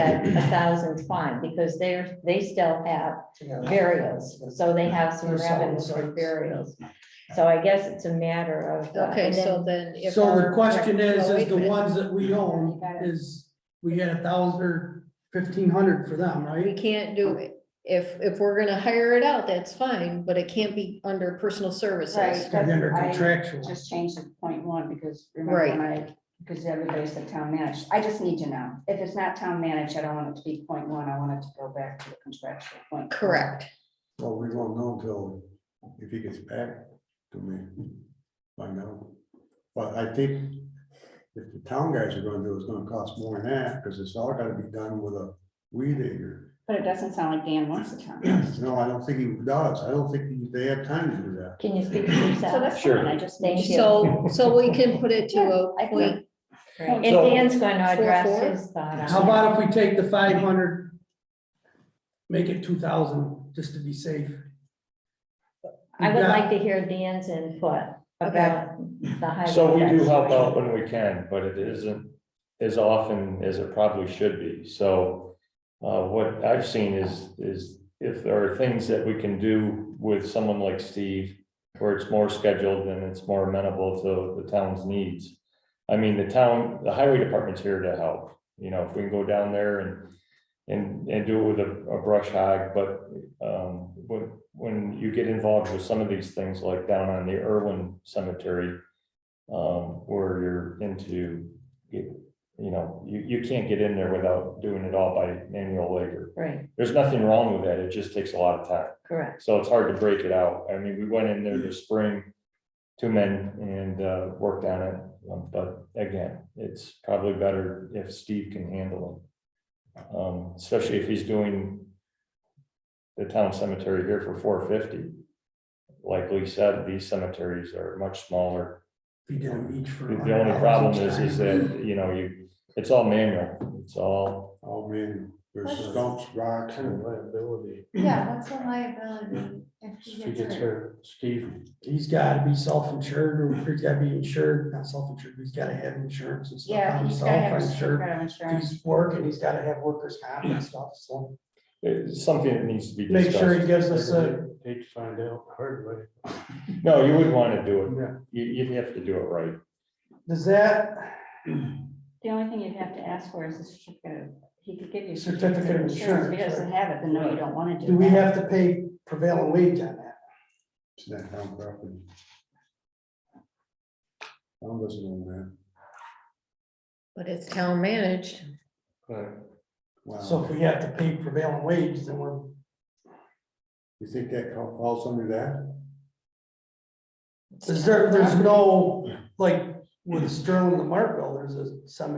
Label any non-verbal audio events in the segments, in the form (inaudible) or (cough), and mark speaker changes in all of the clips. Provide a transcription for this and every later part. Speaker 1: that a thousand's fine, because they're, they still have burials, so they have some revenue for burials. So I guess it's a matter of. uh,
Speaker 2: Okay,
Speaker 1: and then-
Speaker 2: so then if.
Speaker 3: So the
Speaker 2: our-
Speaker 3: question is, is
Speaker 2: Well, wait a
Speaker 3: the
Speaker 2: minute.
Speaker 3: ones that we own, is we get a thousand or fifteen hundred for them,
Speaker 2: We
Speaker 3: right?
Speaker 2: can't do it. If, if we're gonna hire it out, that's fine, but it can't be under personal services.
Speaker 4: Right.
Speaker 3: It's gotta be under
Speaker 4: I-
Speaker 3: contractual.
Speaker 4: Just change the point one, because remember when I, because everybody said town managed, I just need to know, if it's not town managed, I don't want it to be point one, I want it to go back to the contractual point.
Speaker 2: Correct.
Speaker 5: Well, we won't know until if he gets back to me, find out. But I think if the town guys are gonna do it, it's gonna cost more than that, because it's all gotta be done with a weed eater.
Speaker 4: But it doesn't sound like Dan wants the town. managed.
Speaker 5: (clears throat) No, I don't think he does. I don't think they have time to do that.
Speaker 1: Can you speak for
Speaker 4: So
Speaker 1: yourself?
Speaker 4: that's fine, I just
Speaker 1: Thank
Speaker 4: need
Speaker 1: you.
Speaker 4: to.
Speaker 2: So, so we can put it to a
Speaker 4: I think-
Speaker 2: point,
Speaker 1: And
Speaker 5: So-
Speaker 1: Dan's gonna
Speaker 2: Four,
Speaker 1: address
Speaker 2: four?
Speaker 1: his thought on
Speaker 3: How
Speaker 1: it.
Speaker 3: about if we take the five hundred? Make it two thousand, just to be safe.
Speaker 1: I would
Speaker 3: Yeah.
Speaker 1: like to hear Dan's input about the highway.
Speaker 6: So we do uh,
Speaker 1: tax.
Speaker 6: help out when we can, but it isn't as often as it probably should be. So uh, what I've seen is, is if there are things that we can do with someone like Steve, where it's more scheduled and it's more amenable to the town's needs. I mean, the town, the highway department's here to help, you know, if we can go down there and and, and do it with a, a brush hog, but, um, when, when you get involved with some of these things, like down on the Irwin Cemetery, um, where you're into, you you know, you, you can't get in there without doing it all by manual labor.
Speaker 1: Right,
Speaker 6: There's nothing wrong with that, it just takes a lot of time.
Speaker 1: correct.
Speaker 6: So it's hard to break it out. I mean, we went in there this spring, two men and uh, worked on it. Um, But again, it's probably better if Steve can handle it. Um, Especially if he's doing the town cemetery here for four fifty. Like Lee said, these cemeteries are much smaller.
Speaker 3: We do them each for.
Speaker 6: The
Speaker 3: $100
Speaker 6: the only problem is,
Speaker 3: each
Speaker 6: is
Speaker 3: time.
Speaker 6: that, you know, you, it's all manual, it's all,
Speaker 5: Oh, man, there's stumps, rocks, and
Speaker 7: liability.
Speaker 8: Yeah, what's the liability if he
Speaker 7: She
Speaker 8: gets
Speaker 7: gets
Speaker 8: hurt?
Speaker 7: her, Steve,
Speaker 3: He's gotta be self-insured, or he's gotta be insured, not self-insured, but he's gotta have insurance and stuff
Speaker 4: Yeah,
Speaker 3: on
Speaker 4: he's gotta have
Speaker 3: himself,
Speaker 4: some
Speaker 3: I'm sure.
Speaker 4: kind of
Speaker 3: If
Speaker 4: insurance.
Speaker 3: He's working, he's gotta have workers' comp and stuff, so
Speaker 6: it's something that needs to be
Speaker 3: make sure he
Speaker 6: discussed.
Speaker 3: gives us a,
Speaker 7: hate to find out the hard way.
Speaker 6: No, you wouldn't want to do it,
Speaker 7: Yeah.
Speaker 6: you, you'd have to do it right.
Speaker 3: does that
Speaker 4: The only thing you'd have to ask for is a certificate, of- he could give you. a
Speaker 3: Certificate of
Speaker 4: If he
Speaker 3: insurance,
Speaker 4: doesn't have it, then no, you don't want to do
Speaker 3: Do we have
Speaker 4: that.
Speaker 3: to pay prevailing wage on that?
Speaker 5: it's not town property. I'm listening, man.
Speaker 2: but it's town managed.
Speaker 3: So
Speaker 5: Wow,
Speaker 3: if we have to pay prevailing wage, then we're,
Speaker 5: you think that cal- falls under that?
Speaker 3: is there, there's no, like, with Sterling and Martville, there's a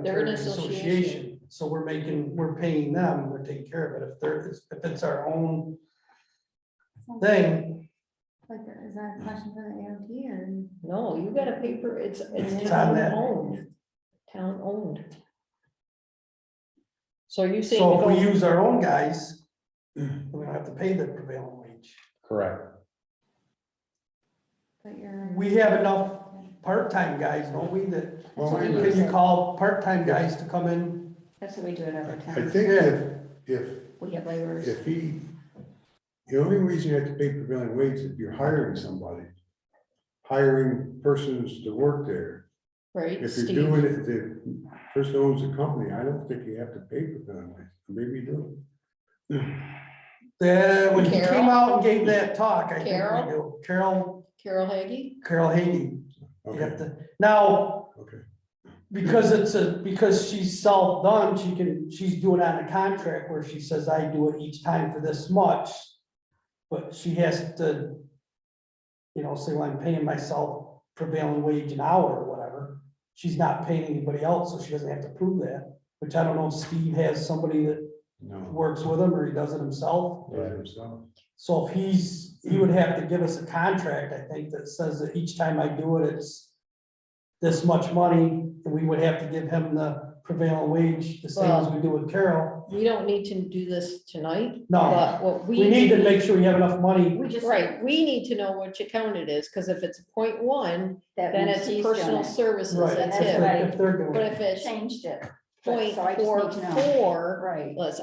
Speaker 2: They're an
Speaker 3: cemetery association. So we're making, we're paying them, we're taking care of it. If there is, if it's our own thing,
Speaker 8: Like, is that a question for the AOT or?
Speaker 2: No, you got a paper, it's, it's
Speaker 3: It's on
Speaker 2: town
Speaker 3: that.
Speaker 2: owned, town owned. So you saying.
Speaker 3: so if we
Speaker 2: go-
Speaker 3: use our own guys, we don't have to pay the prevailing wage.
Speaker 6: Correct.
Speaker 8: But you're.
Speaker 3: We have enough part-time guys, don't we, that,
Speaker 5: Well,
Speaker 4: what
Speaker 5: wait a
Speaker 4: you
Speaker 5: minute.
Speaker 3: can you call part-time guys to come in?
Speaker 4: That's what we do at other
Speaker 5: I
Speaker 4: times.
Speaker 5: think if, if
Speaker 4: We have laborers.
Speaker 5: If he, the only reason you have to pay prevailing wage is if you're hiring somebody. Hiring persons to work there.
Speaker 2: Right,
Speaker 5: If you're
Speaker 2: Steve,
Speaker 5: doing it, the person owns the company, I don't think you have to pay prevailing wage, maybe you do.
Speaker 3: That, when he came
Speaker 2: Carol?
Speaker 3: out and gave that talk, I think we
Speaker 2: Carol?
Speaker 3: do. Carol,
Speaker 2: Carol Haggy,
Speaker 3: Carol Haney, you have
Speaker 5: Okay,
Speaker 3: to, now,
Speaker 5: okay.
Speaker 3: because it's a, because she's self-done, she can, she's doing on a contract where she says, I do it each time for this much. But she has to, you know, say, well, I'm paying myself prevailing wage an hour or whatever. She's not paying anybody else, so she doesn't have to prove that, which I don't know if Steve has somebody that
Speaker 5: No.
Speaker 3: works with him or he does it himself.
Speaker 5: by himself.
Speaker 3: So if he's, he would have to give us a contract, I think, that says that each time I do it, it's this much money, and we would have to give him the prevailing wage, the same as we do with Carol.
Speaker 2: we don't need to do this tonight,
Speaker 3: No,
Speaker 2: but what we.
Speaker 3: Oh. we need to make sure we have enough money.
Speaker 4: We just.
Speaker 2: Right, we need to know which account it is, because if it's point one,
Speaker 4: that
Speaker 2: then
Speaker 4: means
Speaker 2: it's
Speaker 4: he's done
Speaker 2: personal
Speaker 4: it.
Speaker 2: services,
Speaker 3: Right,
Speaker 2: that's
Speaker 3: if
Speaker 2: it.
Speaker 3: they're- If they're doing
Speaker 2: But
Speaker 3: it.
Speaker 2: if it's,
Speaker 4: Changed it.
Speaker 2: Right,
Speaker 4: point
Speaker 2: so I just
Speaker 4: four
Speaker 2: need to know.
Speaker 4: four,
Speaker 2: Right.
Speaker 4: let's